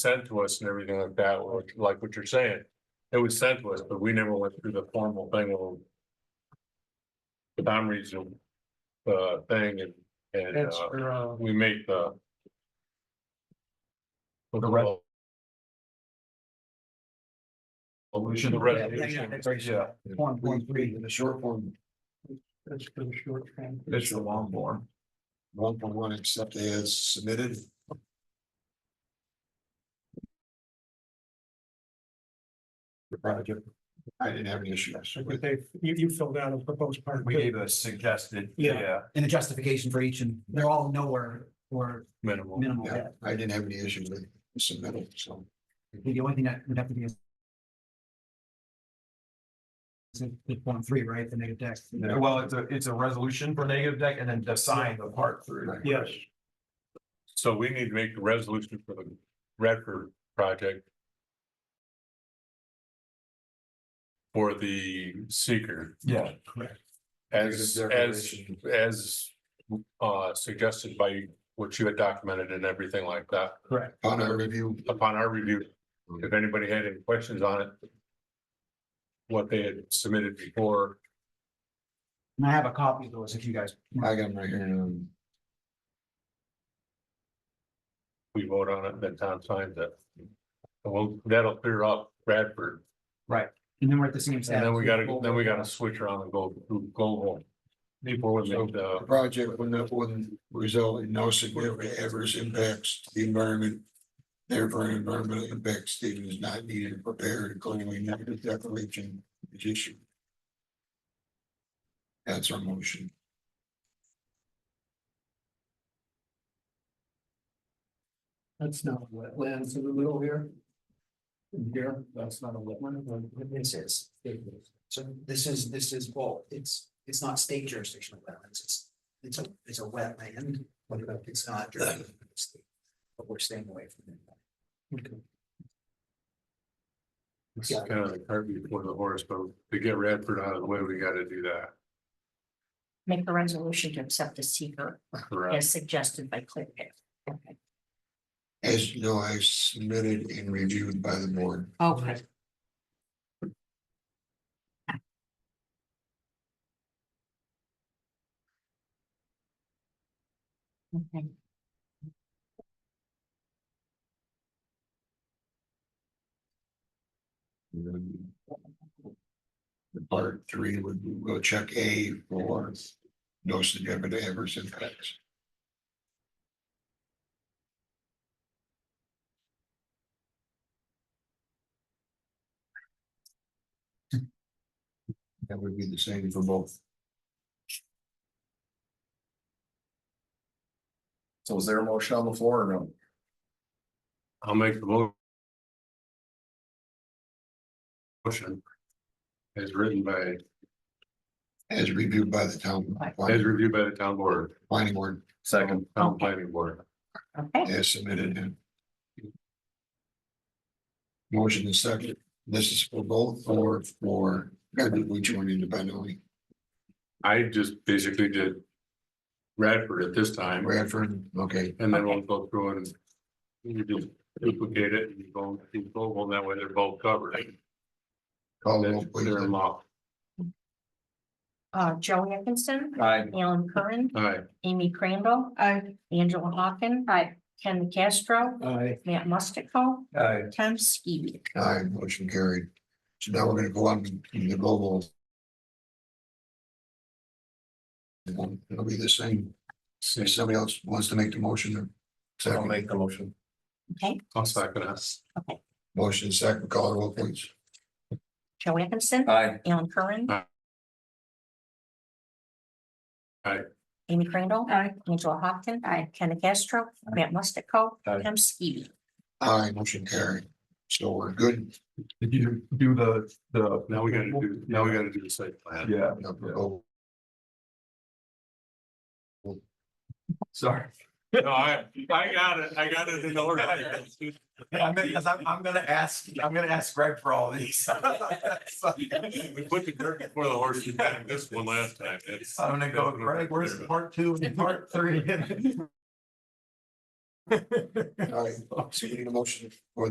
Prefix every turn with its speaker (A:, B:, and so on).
A: sent to us and everything like that, or like what you're saying. It was sent to us, but we never went through the formal thing of. The time reason, uh, thing and, and,
B: That's
A: uh,
B: for, uh,
A: we make the. The
B: re-
A: Resolution, the resolution, yeah,
B: one point three,
C: the short form,
B: that's for the short term.
C: it's the long form. One for one, except as submitted. The project, I didn't have any issues.
B: So
C: with-
B: they, you, you filled out a proposed part.
D: We
B: two.
D: gave a suggested,
B: Yeah.
D: yeah,
E: and the justification for each, and they're all nowhere or
A: minimal.
E: minimal.
C: Yeah, I didn't have any issues with submitted, so.
E: The only thing that would have to be is is the point three, right, the negative text.
D: well, it's a, it's a resolution for negative deck and then assign the part through.
C: Right.
B: Yes,
A: So we need to make the resolution for the Redford project. For the seeker
D: Yeah,
A: as, as
C: Declaration.
A: as uh suggested by what you had documented and everything like that.
C: Upon our review,
A: Upon our review, if anybody had any questions on it. What they had submitted before,
E: And I have a copy of those if you guys.
C: I got them right here.
A: we vote on it, then Tom signs it. And Well, that'll clear up Bradford,
E: And then we're at the same.
A: and then we gotta, then we gotta switch around and go, go home. Before we make
C: The
A: the,
C: project would not, wouldn't result in no significant adverse impacts to the environment. Therefore, an environmental impact statement is not needed to prepare a clearly negative declaration is issued. That's our motion.
B: that's not wetlands in the middle here. Here, that's not a wetland.
E: This is, so this is, this is both, it's, it's not state jurisdictional wetlands, it's, it's a, it's a wetland, but it's not. But we're staying away from it.
A: it's kind of the cart before the horse, but to get Radford out of the way, we gotta do that.
F: Make a resolution to accept the seeker
A: Correct.
F: as suggested by ClearPath. Okay.
C: As you know, I submitted and reviewed by the board.
F: Okay. Okay.
C: Part three would go check A for no significant adverse impacts. That would be the same for both.
D: so is there a motion on the floor or no?
A: I'll make the mo- Motion. As written by,
C: As reviewed by the town.
A: as reviewed by the town board,
C: Planning board
D: Second.
A: town planning board.
F: Okay,
C: as submitted. Motion is second. This is for both or for, which one independently?
A: I just basically did. Radford at this time,
C: Bradford, okay.
A: and then we'll go through and. You just duplicate it and go, you go, well, that way they're both covered.
C: Call the roll,
A: Then Clear them
C: please.
A: off.
F: uh, Joey Atkinson,
D: Aye.
F: Alan Curran,
A: All right,
F: Amy Crandall. Angela Hawken. Ken Castro,
B: I
F: Matt Mustico,
D: Aye.
F: Tom Ski.
C: Aye, motion carried. So now we're gonna go on to the global. It'll be the same. If somebody else wants to make the motion.
D: I'll
C: Second,
D: make the motion.
F: Okay,
A: I'll second us.
C: motion second, call the roll, please.
F: Joey Atkinson,
D: Aye.
F: Alan Curran.
A: Aye. Aye.
F: Amy Crandall. Angela Hawken. Ken Castro, Matt Mustico,
D: Aye.
F: Tom Ski.
C: Aye, motion carried. So we're good.
D: Did you do the, the?
A: Now we gotta do, now we gotta do the site plan.
D: Yeah,
C: Now for global.
D: sorry.
A: No, I, I got it, I got it in order.
D: Yeah, I mean, because I'm, I'm gonna ask, I'm gonna ask Greg for all these.
A: We put the dirt before the horse, you had this one last time. It's-
D: I'm gonna go, Greg, where's part two and part three?
C: All right, so you need a motion for